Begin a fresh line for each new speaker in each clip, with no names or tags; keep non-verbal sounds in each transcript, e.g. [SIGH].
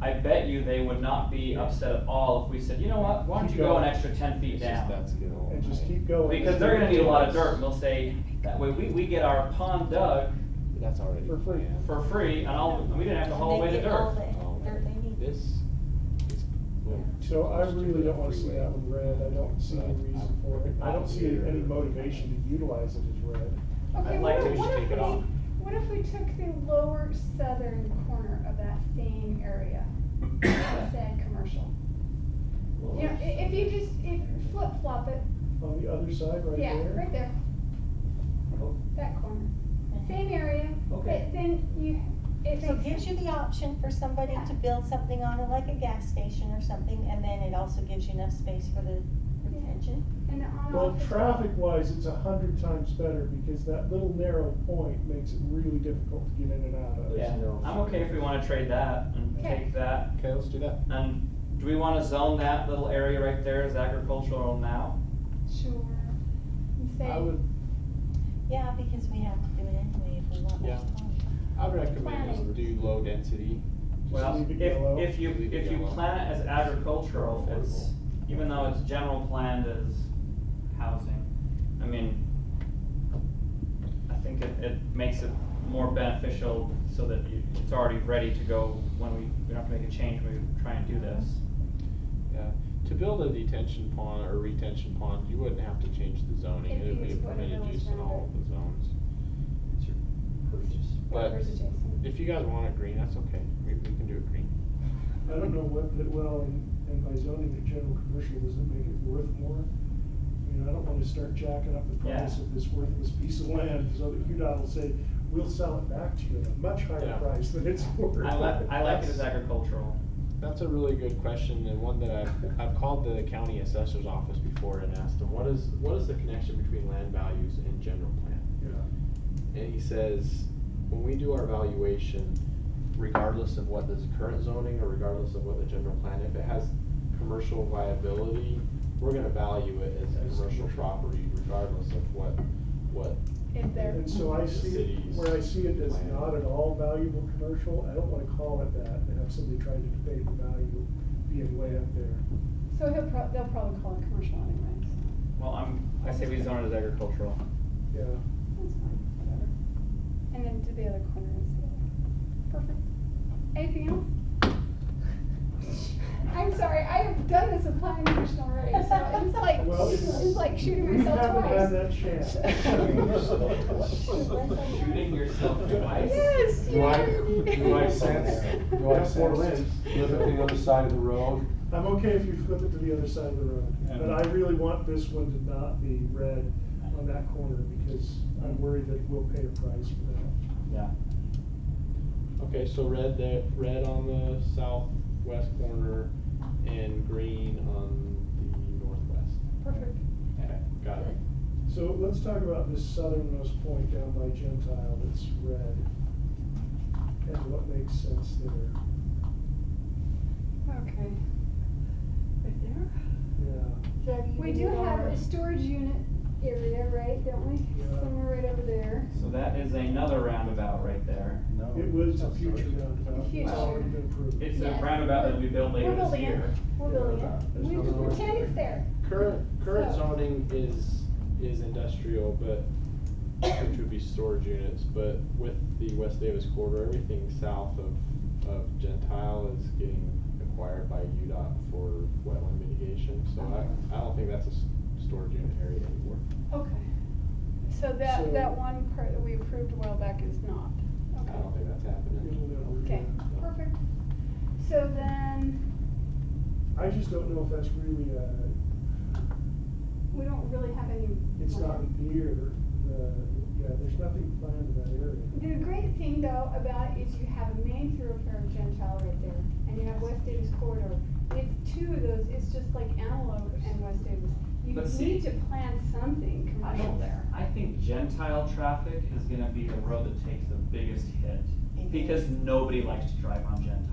I bet you they would not be upset at all if we said, you know what, why don't you go an extra ten feet
It's
down?
just that's good old.
And just keep going.
Because they're gonna need a lot of dirt, and they'll say, that way, we, we get our pond dug
That's already
For free.
planned.
for free, and all, and we didn't have to haul away the dirt.
Oh,
Dirt they need.
This is. going
So I
close to
really
the
don't wanna see
freeway.
that one red, I don't see any reason for it, I don't see any motivation to utilize it as red.
Okay,
I'd
what
like
if,
to
what
just
if
take it
we,
off.
what if we took the lower southern corner of that same area? that Said commercial. You know, i- if you just, if flip flop it,
On the other side, right
yeah, right
there,
there.
Oh.
That corner, same area, but
Okay.
then you, it
So it gives
makes,
you the option for somebody to build something on it, like a gas station or something, and then it also gives you enough space for the retention.
and the on
well,
off. is-
traffic wise, it's a hundred times better, because that little narrow point makes it really difficult to get in and out of.
There's
Yeah,
no-
I'm okay if we wanna trade that and
Okay.
take that,
Okay, let's do that.
and do we wanna zone that little area right there as agricultural now?
Sure. And
I
say,
would,
Yeah, because we have to do it anyway if we want more
Yeah.
time.
I would recommend just do low density.
Just
Well,
leave it yellow.
if, if you,
Leave it
if you
yellow.
plan it as agricultural, it's, even though it's general planned as housing, I mean, I think it, it makes it more beneficial so that you, it's already ready to go when we, we don't have to make a change when we try and do this.
Yeah. To build a detention pond or retention pond, you wouldn't have to change the zoning.
If
It would
you
be a
use whatever
permitted
was
use in
around
all of the zones. But
whatever's adjacent.
if you guys want it green, that's okay. We, we can do it green.
I don't know what, that well, and, and by zoning it general commercial, does it make it worth more? I mean, I don't wanna start jacking up the price
Yeah.
of this worthless piece of land, so that UDOT will say, we'll sell it back to you at a much higher
Yeah.
price than it's worth.
I like, I like it as
That's-
agricultural.
That's a really good question and one that I've, I've called the county assessor's office before and asked them, what is, what is the connection between land values and general plan?
Yeah.
And he says, when we do our valuation, regardless of what is current zoning or regardless of what the general plan, if it has commercial viability, we're gonna value it as a
As
commercial
commercial.
property regardless of what, what,
If there,
And so I
The
see,
city's
where I see it as
plan.
not at all valuable commercial, I don't wanna call it that, and have somebody trying to debate the value being way up there.
so he'll prob, they'll probably call it commercial anyway, so
Well, I'm, I say we zone it as agricultural.
Yeah,
that's fine, whatever. And then to the other corner is the other. Perfect. Anything else? I'm sorry, I have done this with planning commission already, so it's like,
Well, it's-
it's like shooting
we
myself
haven't had
twice.
that
[LAUGHS]
chance.
Shooting yourself twice?
Yes, you
Do I-
did.
do I sense- do I sense- Look at the other side of the road.
I'm okay if you flip it to the other side of the road, but I really want this one to not be red on that corner because I'm worried that we'll pay a price for that.
Yeah.
okay, so red there, red on the southwest corner and green on the northwest.
Perfect.
Okay, got it.
So let's talk about this southernmost point down by Gentile that's red and what makes sense there.
Okay. Right there?
Yeah,
We do have a storage unit area, right, don't we?
Yeah.
Somewhere right over there.
So that is another roundabout right there.
No.
it was a future roundabout, it's
Future.
already been approved.
It's a
Yeah.
roundabout that'll be built later
We're
this
building it.
year.
We're building it.
There's
We
no
we
storage
pretend it's there.
Current, current
So-
zoning is, is industrial, but, which would be storage units, but with the West Davis corridor, everything south of, of Gentile is getting acquired by UDOT for wetland mitigation, so I, I don't think that's a s- storage unit area anymore.
Okay. So
So-
that, that one part that we approved a while back is not.
I
Okay.
don't think that's happening.
It'll never
Okay,
happen.
perfect. So then,
I just don't know if that's really a,
we don't really have any.
it's not
plan.
near the, yeah, there's nothing planned in that area.
The great thing though about it is you have a main thoroughfare of Gentile right there, and you have West Davis corridor. It's two of those, it's just like Antelope and West Davis. You
But see-
need to plan something
I
commercial
don't,
there.
I think Gentile traffic is gonna be the road that takes the biggest hit, because nobody likes to drive on Gentile.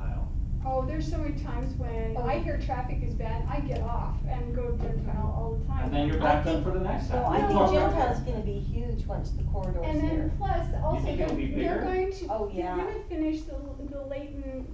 Oh, there's so many times when I hear traffic is bad, I get off and go to Gentile all the time.
And then you're back done for the next half.
No, I
You
think
park right
Gentile's
there.
gonna be huge once the corridor's
And
there.
then plus, also,
think
they're
it'll be
they're
bigger?
going to,
Oh,
they're
yeah.
gonna finish the, the Leighton